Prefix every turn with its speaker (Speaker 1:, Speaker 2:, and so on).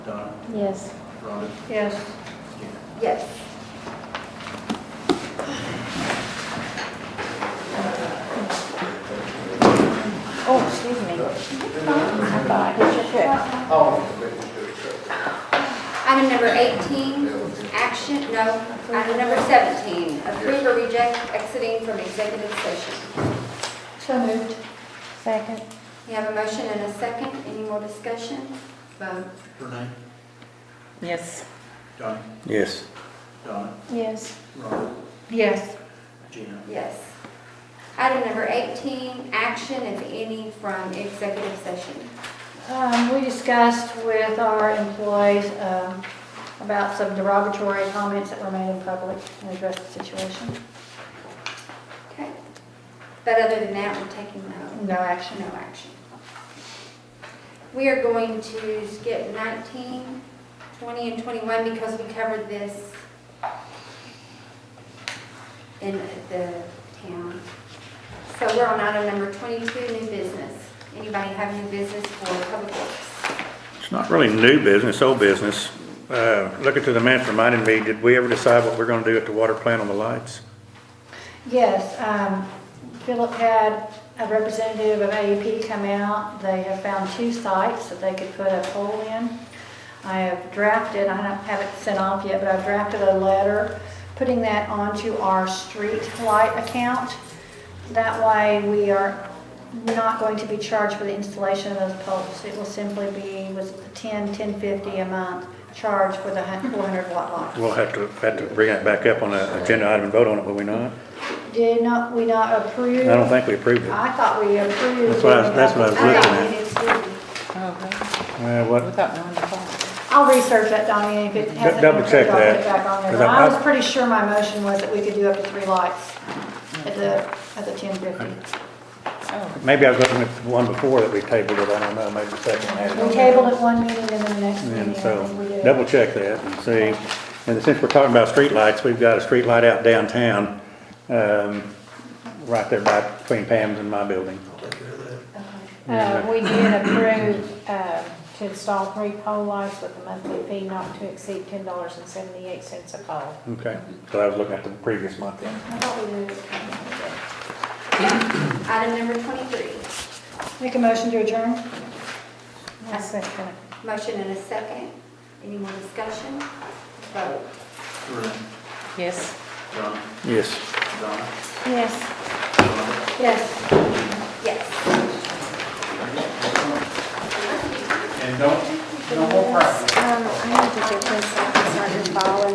Speaker 1: Yes.
Speaker 2: Rhonda?
Speaker 1: Yes.
Speaker 3: Yes.
Speaker 1: Oh, excuse me. I thought I hit your check.
Speaker 3: Item number 18, action, no, item number 17, approve or reject exiting from executive session.
Speaker 1: So moved. Second.
Speaker 3: You have a motion and a second, any more discussion? Vote.
Speaker 2: Renee?
Speaker 1: Yes.
Speaker 2: Donnie?
Speaker 4: Yes.
Speaker 2: Donna?
Speaker 1: Yes.
Speaker 2: Rhonda?
Speaker 1: Yes.
Speaker 2: Gina?
Speaker 3: Yes. Item number 18, action, if any, from executive session.
Speaker 5: Um, we discussed with our employees, um, about some derogatory comments that were made in public and addressed the situation.
Speaker 3: Okay. But other than that, we're taking
Speaker 5: No
Speaker 3: no,
Speaker 5: action.
Speaker 3: no action. We are going to skip 19, 20, and 21 because we covered this in the town. So we're on item number 22, new business. Anybody have new business for public works?
Speaker 4: It's not really new business, old business. Uh, Looking through the minutes reminded me, did we ever decide what we're going to do at the water plant on the lights?
Speaker 5: Yes, um, Philip had a representative of AEP come out. They have found two sites that they could put a pole in. I have drafted, I don't- haven't sent off yet, but I've drafted a letter putting that onto our street light account. That way, we are not going to be charged for the installation of those poles. It will simply be, was it 10, 1050 a month charge for the hun- 400 watt light.
Speaker 4: We'll have to, have to bring that back up on the agenda item and vote on it, will we not?
Speaker 5: Did not, we not approve?
Speaker 4: I don't think we approved it.
Speaker 5: I thought we approved.
Speaker 4: That's what I- that's what I was
Speaker 3: I
Speaker 4: looking
Speaker 3: thought
Speaker 4: at.
Speaker 3: we did too.
Speaker 1: Okay.
Speaker 4: Uh, what,
Speaker 1: Without knowing the call.
Speaker 5: I'll research that, Donnie, and if it hasn't.
Speaker 4: double check
Speaker 5: I'll put it
Speaker 4: that,
Speaker 5: back on there.
Speaker 4: 'cause
Speaker 5: But
Speaker 4: I-
Speaker 5: I was pretty sure my motion was that we could do up to three lights at the, at the ten fifty.
Speaker 1: Oh,
Speaker 4: maybe I was looking at the one before that we tabled it, I don't know, maybe the second one had it. on
Speaker 5: We
Speaker 4: there.
Speaker 5: tabled it one meeting and then the next meeting,
Speaker 4: And
Speaker 5: I think we
Speaker 4: so,
Speaker 5: did.
Speaker 4: double check that and see. And since we're talking about streetlights, we've got a streetlight out downtown, um, right there by, between Pam's and my building.
Speaker 2: I'll take care of that.
Speaker 6: Uh, we did approve, uh, to install three pole lights with a monthly fee not to exceed ten dollars and seventy-eight cents a pole.
Speaker 4: Okay, so I was looking at the previous month then.
Speaker 5: I thought we did.
Speaker 3: Item number 23.
Speaker 5: Make a motion to adjourn?
Speaker 6: I second it.
Speaker 3: Motion and a second. Any more discussion? Vote.
Speaker 2: Renee?
Speaker 1: yes.
Speaker 2: Donna?
Speaker 4: Yes.
Speaker 2: Donna?
Speaker 1: Yes.
Speaker 2: Rhonda?
Speaker 5: Yes.
Speaker 3: Yes.
Speaker 2: And don't, no more practice.
Speaker 6: Um, I need to get this, I can start your file